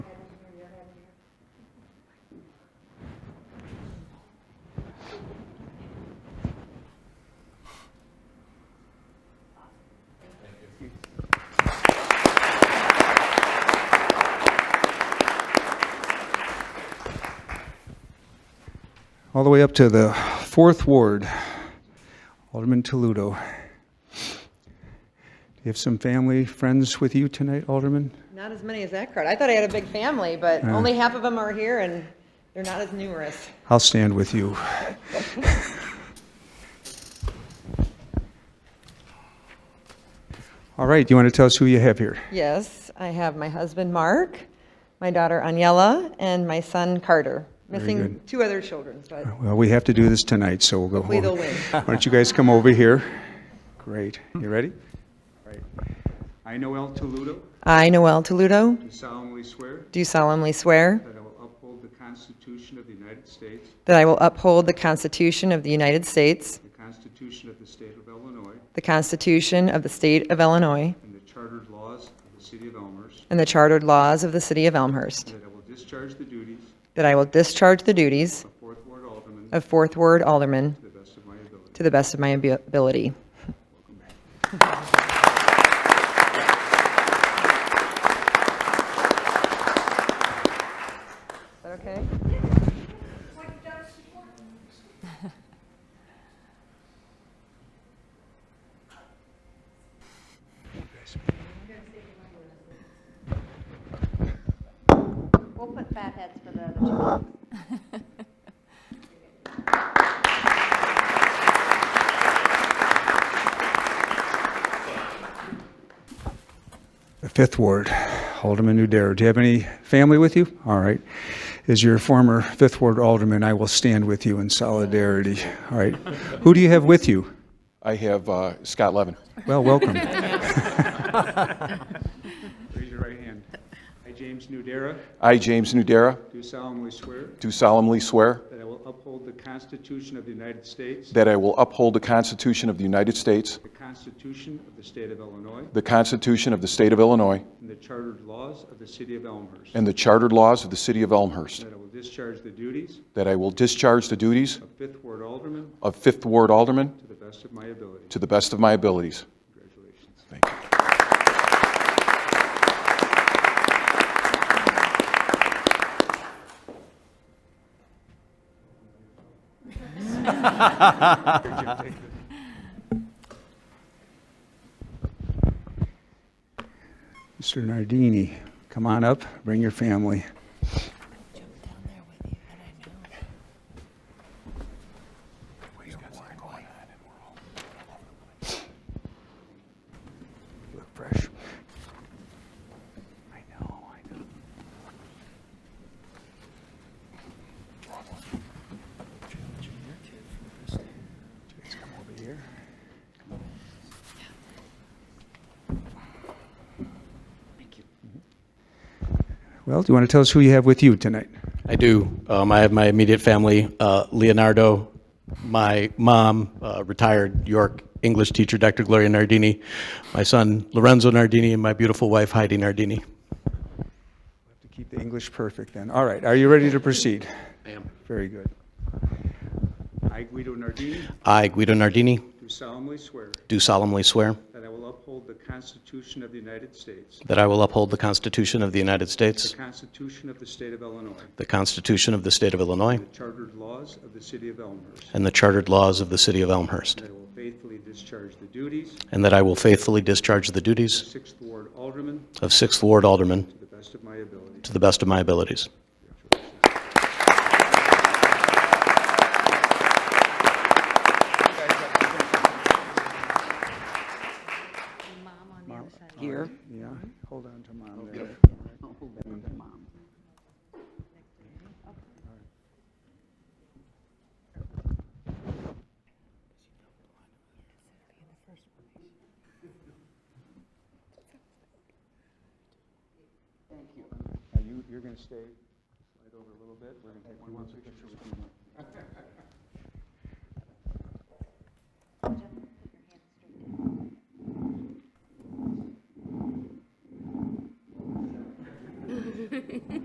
all the way up to the fourth ward. Alderman Toledo. Do you have some family, friends with you tonight, Alderman? Not as many as that crowd. I thought I had a big family, but only half of them are here and they're not as numerous. I'll stand with you. All right, you want to tell us who you have here? Yes, I have my husband, Mark, my daughter, Aniela, and my son, Carter. Missing good. two other children, but Well, we have to do this tonight, so we'll go Hopefully home. they'll win. Why don't you guys come over here? Great. You ready? All right. I, Noel Toludo, I, Noel Toludo, do solemnly swear do solemnly swear that I will uphold the Constitution of the United States, that I will uphold the Constitution of the United States, the Constitution of the State of Illinois, the Constitution of the State of Illinois, and the chartered laws of the City of Elmhurst, and the chartered laws of the City of Elmhurst, and that I will discharge the duties that I will discharge the duties of Fourth Ward Alderman of Fourth Ward Alderman to the best of my ability. to the best of my abi- ability. Welcome back. Is that okay? We'll put fat heads for the other two. The Fifth Ward, Alderman Udaro. Do you have any family with you? All right. As your former Fifth Ward Alderman, I will stand with you in solidarity. All right. Who do you have with you? I have uh, Scott Levin. Well, welcome. Raise your right hand. I, James Nudera, I, James Nudera, do solemnly swear do solemnly swear that I will uphold the Constitution of the United States, that I will uphold the Constitution of the United States, the Constitution of the State of Illinois, the Constitution of the State of Illinois, and the chartered laws of the City of Elmhurst, and the chartered laws of the City of Elmhurst, that I will discharge the duties that I will discharge the duties of Fifth Ward Alderman of Fifth Ward Alderman to the best of my ability. to the best of my abilities. Congratulations. Thank you. Mr. Nardini, come on up, bring your family. Look fresh. I know, I know. Let's come over here. Mm-hmm. Well, do you want to tell us who you have with you tonight? I do. Um, I have my immediate family, uh, Leonardo, my mom, uh, retired York English teacher, Dr. Gloria Nardini, my son Lorenzo Nardini, and my beautiful wife Heidi Nardini. To keep the English perfect then. All right, are you ready to proceed? I am. Very good. I, Guido Nardini, I, Guido Nardini, do solemnly swear do solemnly swear that I will uphold the Constitution of the United States, that I will uphold the Constitution of the United the States, Constitution of the State of Illinois, the Constitution of the State of Illinois, the chartered laws of the City of Elmhurst, and the chartered laws of the City of Elmhurst, that I will faithfully discharge the duties and that I will faithfully discharge the of duties Sixth Ward Alderman of Sixth Ward Alderman to the best of my ability. to the best of my abilities. Mom on the other side. Here. Yeah, hold on to mom there. Now, you, you're gonna stay right over a little bit, we're gonna take one more picture.